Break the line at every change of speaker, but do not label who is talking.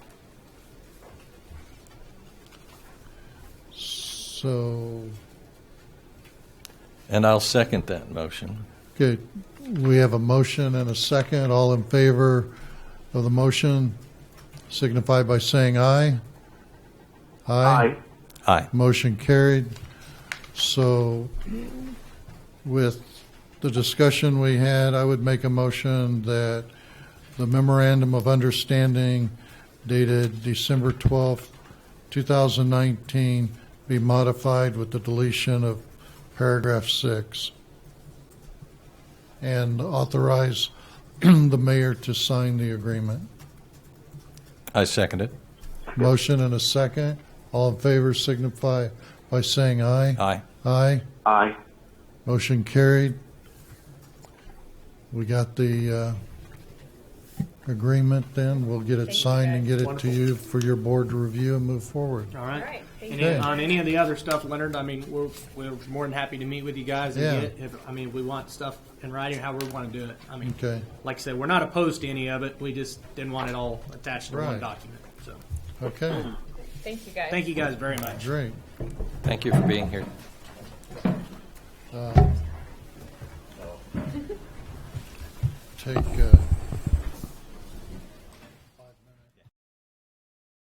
So,
And I'll second that motion.
okay, we have a motion and a second. All in favor of the motion signify by saying aye.
Aye.
Aye.
Motion carried. So with the discussion we had, I would make a motion that the memorandum of understanding dated December 12th, 2019 be modified with the deletion of paragraph six and authorize the mayor to sign the agreement.
I second it.
Motion and a second. All in favor signify by saying aye.
Aye.
Aye.
Aye.
Motion carried. We got the uh, agreement then. We'll get it
Thank you,
signed and
guys.
get it to
Wonderful.
you for your board to review and move forward.
All right.
All right, thank
Any,
Okay.
On any of the other stuff, Leonard, I mean, we're, we're more than happy to meet with you guys. And
Yeah.
get, if, I mean, we want stuff in writing, how we want to do it. I mean,
Okay,
like I said, we're not opposed to any of it. We just didn't want it all attached to
Right.
one document. So
okay,
Thank you guys.
thank you guys very much.
great.
Thank you for being here.
Take, uh,